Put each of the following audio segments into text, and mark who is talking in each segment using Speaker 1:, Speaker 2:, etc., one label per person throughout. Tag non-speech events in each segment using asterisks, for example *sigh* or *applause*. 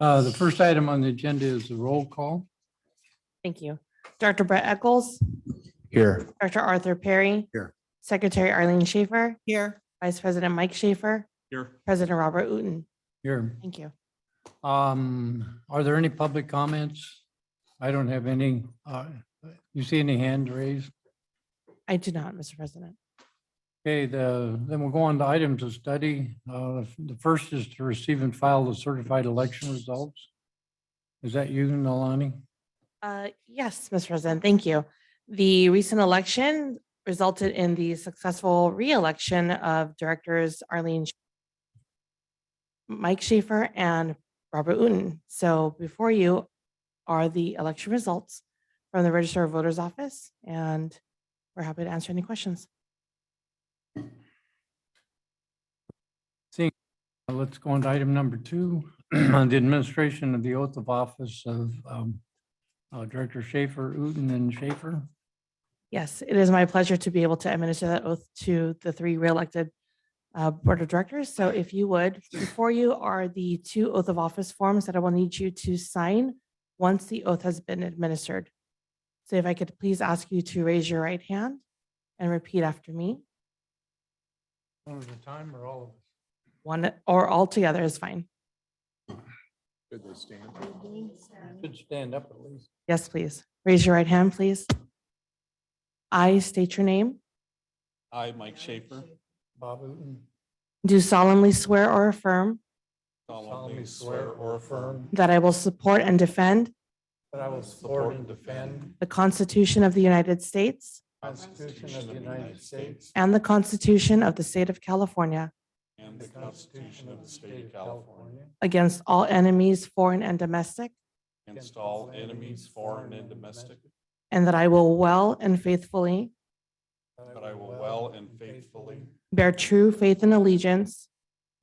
Speaker 1: Uh, The first item on the agenda is the roll call.
Speaker 2: Thank you. Dr. Brett Eccles,
Speaker 3: Here.
Speaker 2: Dr. Arthur Perry.
Speaker 3: Here.
Speaker 2: Secretary Arlene Schaefer,
Speaker 4: Here.
Speaker 2: Vice President Mike Schaefer,
Speaker 5: Here.
Speaker 2: President Robert Uten.
Speaker 1: Here,
Speaker 2: Thank you.
Speaker 1: um, are there any public comments? I don't have any. Uh, You see any hand raised?
Speaker 2: I do not, Mr. President.
Speaker 1: Okay, the, then we'll go on to items of study. Uh, The first is to receive and file the certified election results. Is that you, Nalani?
Speaker 2: Uh, Yes, Mr. President, thank you. The recent election resulted in the successful reelection of directors Arlene Sch- Mike Schaefer and Robert Uten. So before you are the election results from the Register of Voters Office, and we're happy to answer any questions.
Speaker 1: Uh, Let's go on to item number two, *clears throat* on the administration of the oath of office of um, uh, Director Schaefer, Uten and Schaefer.
Speaker 2: Yes, it is my pleasure to be able to administer that oath to the three re-elected uh, Board of Directors. So if you would, before you are the two oath of office forms that I will need you to sign once the oath has been administered. So if I could please ask you to raise your right hand and repeat after me,
Speaker 1: One at a time or all of us?
Speaker 2: one or all together is fine.
Speaker 3: Could they stand?
Speaker 1: Should stand up at least.
Speaker 2: Yes, please. Raise your right hand, please. I state your name,
Speaker 5: I, Mike Schaefer,
Speaker 1: Bob Uten.
Speaker 2: do solemnly swear or affirm
Speaker 5: solemnly swear or affirm
Speaker 2: that I will support and defend
Speaker 1: That I will support and defend
Speaker 2: the Constitution of the United States
Speaker 1: the Constitution of the United States
Speaker 2: And the Constitution of the State of California
Speaker 5: and the Constitution of the State of California
Speaker 2: against all enemies, foreign and domestic,
Speaker 5: against all enemies, foreign and domestic,
Speaker 2: and that I will well and faithfully
Speaker 5: but I will well and faithfully
Speaker 2: bear true faith and allegiance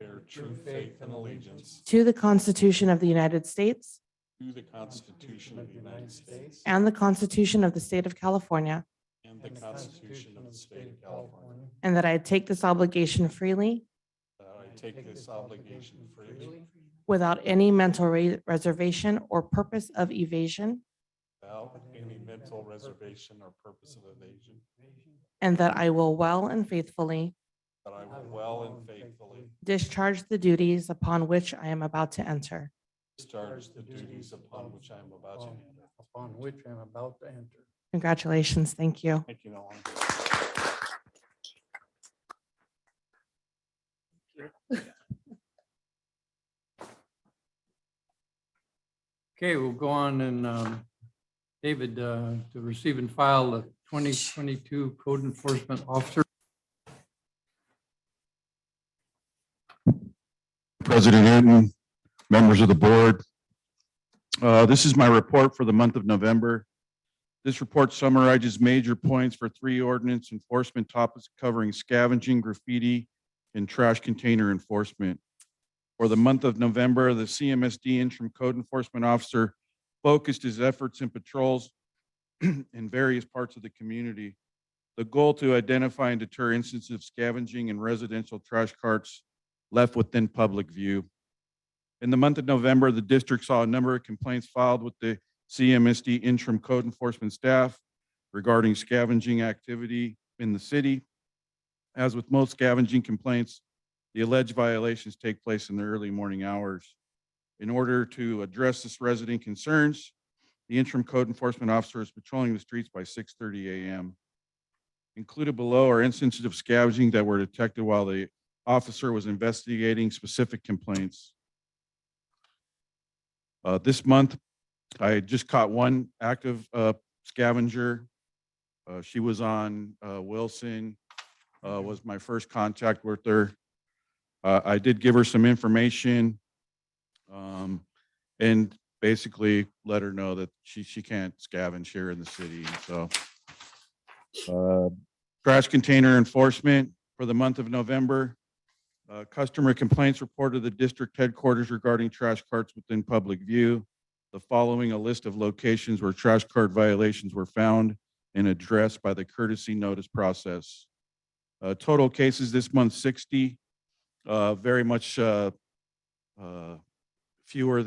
Speaker 5: bear true faith and allegiance
Speaker 2: to the Constitution of the United States
Speaker 5: to the Constitution of the United States
Speaker 2: and the Constitution of the State of California,
Speaker 5: and the Constitution of the State of California,
Speaker 2: and that I take this obligation freely
Speaker 5: that I take this obligation freely
Speaker 2: without any mental re- reservation or purpose of evasion,
Speaker 5: without any mental reservation or purpose of evasion,
Speaker 2: and that I will well and faithfully
Speaker 5: that I will well and faithfully
Speaker 2: discharge the duties upon which I am about to enter.
Speaker 5: discharge the duties upon which I am about to enter.
Speaker 1: upon which I'm about to enter.
Speaker 2: Congratulations. Thank you.
Speaker 5: Thank you, Nolan.
Speaker 1: Okay, we'll go on and um, David, uh, to receive and file the 2022 Code Enforcement Officer.
Speaker 6: President Hinton, members of the board. Uh, This is my report for the month of November. This report summarizes major points for three ordinance enforcement topics covering scavenging, graffiti, and trash container enforcement. For the month of November, the CMSD interim code enforcement officer focused his efforts and patrols *clears throat* in various parts of the community. The goal to identify and deter instances of scavenging in residential trash carts left within public view. In the month of November, the district saw a number of complaints filed with the CMSD interim code enforcement staff regarding scavenging activity in the city. As with most scavenging complaints, the alleged violations take place in the early morning hours. In order to address this resident concerns, the interim code enforcement officer is patrolling the streets by 6:30 a.m. Included below are instances of scavenging that were detected while the officer was investigating specific complaints. Uh, This month, I just caught one active uh, scavenger. Uh, She was on uh, Wilson, uh, was my first contact with her. Uh, I did give her some information um, and basically let her know that she, she can't scavenge here in the city, and so. uh, Trash container enforcement for the month of November. Uh, Customer complaints reported to the district headquarters regarding trash carts within public view. The following a list of locations where trash cart violations were found and addressed by the courtesy notice process. Uh, Total cases this month, 60. uh, Very much uh, uh, fewer